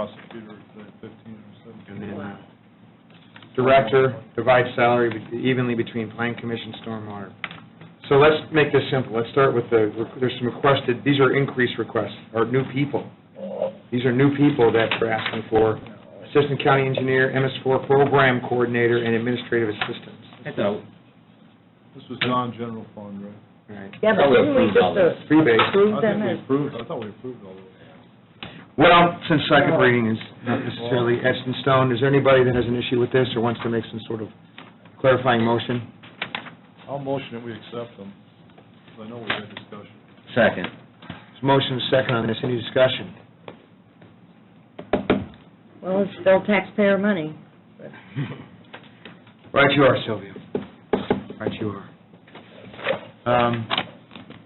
prosecutor at the fifteen or And seventeen. then uh, Wow. director divides salary evenly between plan commission, stormwater. So let's make this simple. Let's start with the, there's some requested, these are increase requests, or new people. These are new people that we're asking for. Assistant county engineer, MS4 program coordinator, and administrative assistants. I thought, This was non-general fund, right? All right. Yeah, but Probably didn't we approved all this. just Freebase. approve them I think as, we approved, I thought we approved all of it. Well, since second reading is not necessarily etched in stone, is there anybody that has an issue with this or wants to make some sort of clarifying motion? I'll motion that we accept them, 'cause I know we had discussion. second. There's a Motion and a second on this, any discussion? well, it's still taxpayer money. but- Right you are, Sylvia. Right you are. Um,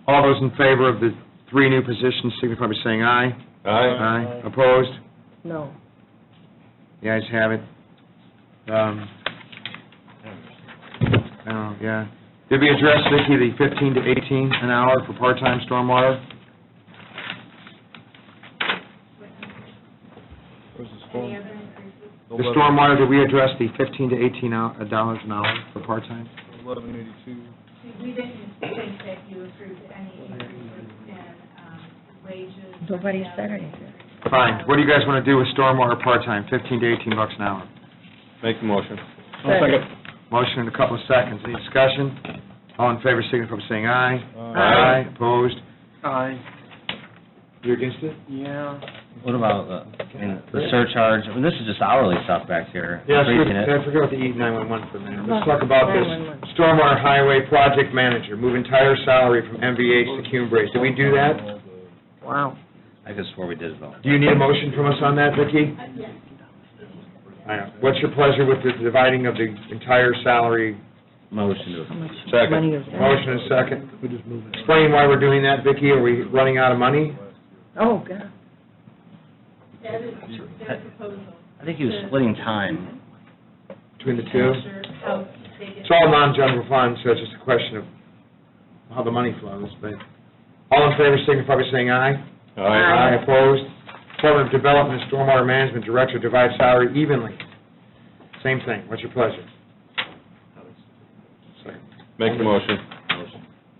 All those in favor of the three new positions signify by saying aye. Aye. Opposed? No. The ayes have it. Um, Oh, yeah. Did we address, Vicki, the 15 to 18 an hour for part-time stormwater? Where's the storm? The stormwater, did we address the 15 to 18 hou- dollars an hour for part-time? Eleven eighty-two, We didn't think that you approved any increases in um, wages. Nobody said anything. Fine. What do you guys want to do with stormwater part-time, 15 to 18 bucks an hour? Make the motion. Motion in a couple of seconds. Any discussion? All in favor, signify by saying aye. Aye. Opposed? Aye, You're against it? yeah. What about, uh, and the surcharge, I mean, this is just hourly stuff back here. Yes, we- Increasing I it. forgot the E nine-one-one for a minute. Let's talk about this stormwater highway project manager, move entire salary from MVH to Cume Brace. Did we do that? Wow. I guess where we did it though. Do you need a motion from us on that, Vicki? I know. What's your pleasure with the dividing of the entire salary? Motion to, Second. Money is that? Motion and second. Explain why we're doing that, Vicki. Are we running out of money? Oh, God. That is their proposal. I think he was splitting time. Between the two? Sure, how they get- It's all non-general fund, so it's just a question of how the money flows, but, all in favor, signify by saying aye. Aye. opposed. Department of Development and Stormwater Management Director divides salary evenly. Same thing, what's your pleasure? Second. Make the motion.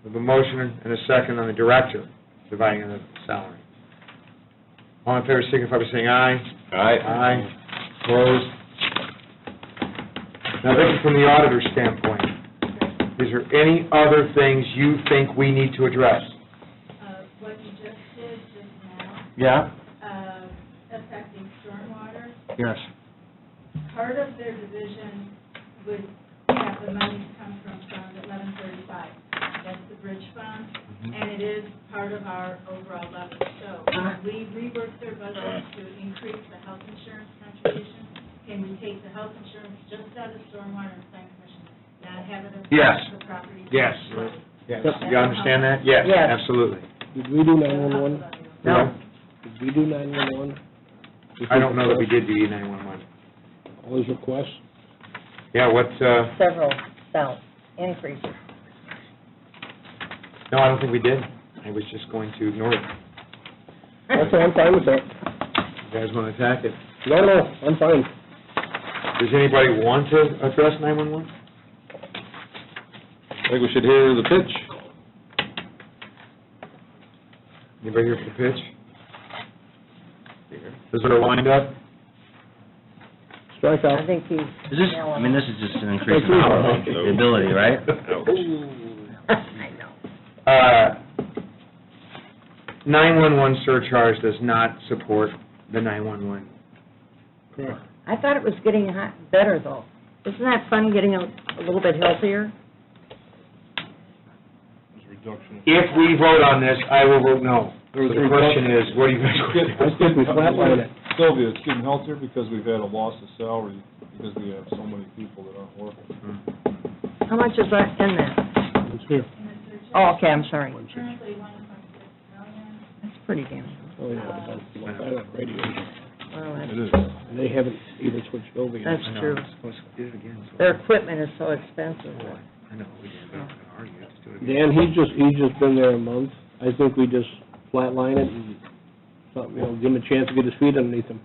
We have a motion and a second on the director dividing the salary. All in favor, signify by saying aye. Aye. Aye. Opposed? Now, this is from the auditor's standpoint. Is there any other things you think we need to address? uh, What you just did just now, Yeah? uh, affecting stormwater, Yes. part of their division would have the money come from Fund 1135. That's the bridge fund, and it is part of our overall level. So when we rework their budget to increase the health insurance contribution. Can we take the health insurance just out of stormwater and plan commission, not have it Yes. affect the property? Yes. tax? Yes. You understand that? Yes, Yes. absolutely. Did we do The nine-one-one? health level. No. Did we do nine-one-one? I don't know that we did the E nine-one-one. All these requests? Yeah, what, uh, Several thousand increases. no, I don't think we did. I was just going to ignore it. That's, I'm fine with that. You guys want to attack it? No, no, I'm fine. Does anybody want to address nine-one-one? I think we should hear the pitch. Anybody here for the pitch? Is there a lineup? Strike I out. think he's. Is this, I mean, this is just an increase in hourly, the ability, right? I know. Uh, 911 surcharge does not support the 911. I thought it was getting hot, better though. Isn't that fun, getting a, a little bit healthier? there's a reduction. If we vote on this, I will vote no. was a The question is, what do you guys I want to do? think we flatlined it. Sylvia, it's getting healthier because we've had a loss of salary, because we have so many people that aren't working. Hmm. How much is that in that? It's here. Oh, okay, I'm sorry. Currently 1.6 million. That's pretty damn, Oh, yeah, it's on- it's on that radio. well, that's, It is. And They haven't even switched over yet. that's true. Do it again, so- Their equipment is so expensive. I know, we didn't, but I'm gonna argue, let's do it again. Dan, he's just, he's just been there a month. I think we just flatline it and, something, you know, give him a chance to get his feet underneath him.